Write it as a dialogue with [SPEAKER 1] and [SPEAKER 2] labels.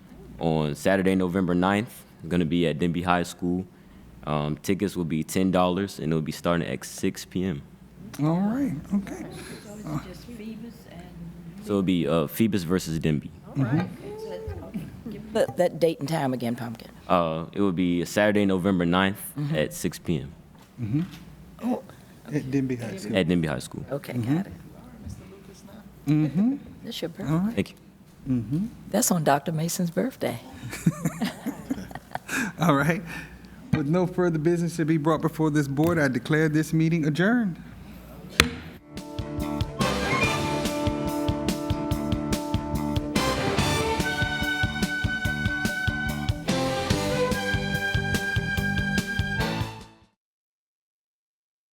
[SPEAKER 1] on Saturday, November 9th. It's going to be at Denby High School. Um, tickets will be $10 and it'll be starting at 6 p.m.
[SPEAKER 2] All right, okay.
[SPEAKER 3] So it's just Phoebus and,
[SPEAKER 1] So it'll be uh, Phoebus versus Denby.
[SPEAKER 3] all right, okay, so that's, okay.
[SPEAKER 4] But that date and time again, Pumpkin.
[SPEAKER 1] Uh, it will be Saturday, November 9th at 6 p.m.
[SPEAKER 2] It didn't be high school.
[SPEAKER 1] at Denby High School.
[SPEAKER 4] Okay, got it. That's your birthday.
[SPEAKER 1] Thank you.
[SPEAKER 4] That's on Dr. Mason's birthday.
[SPEAKER 2] All right. With no further business to be brought before this board, I declare this meeting adjourned.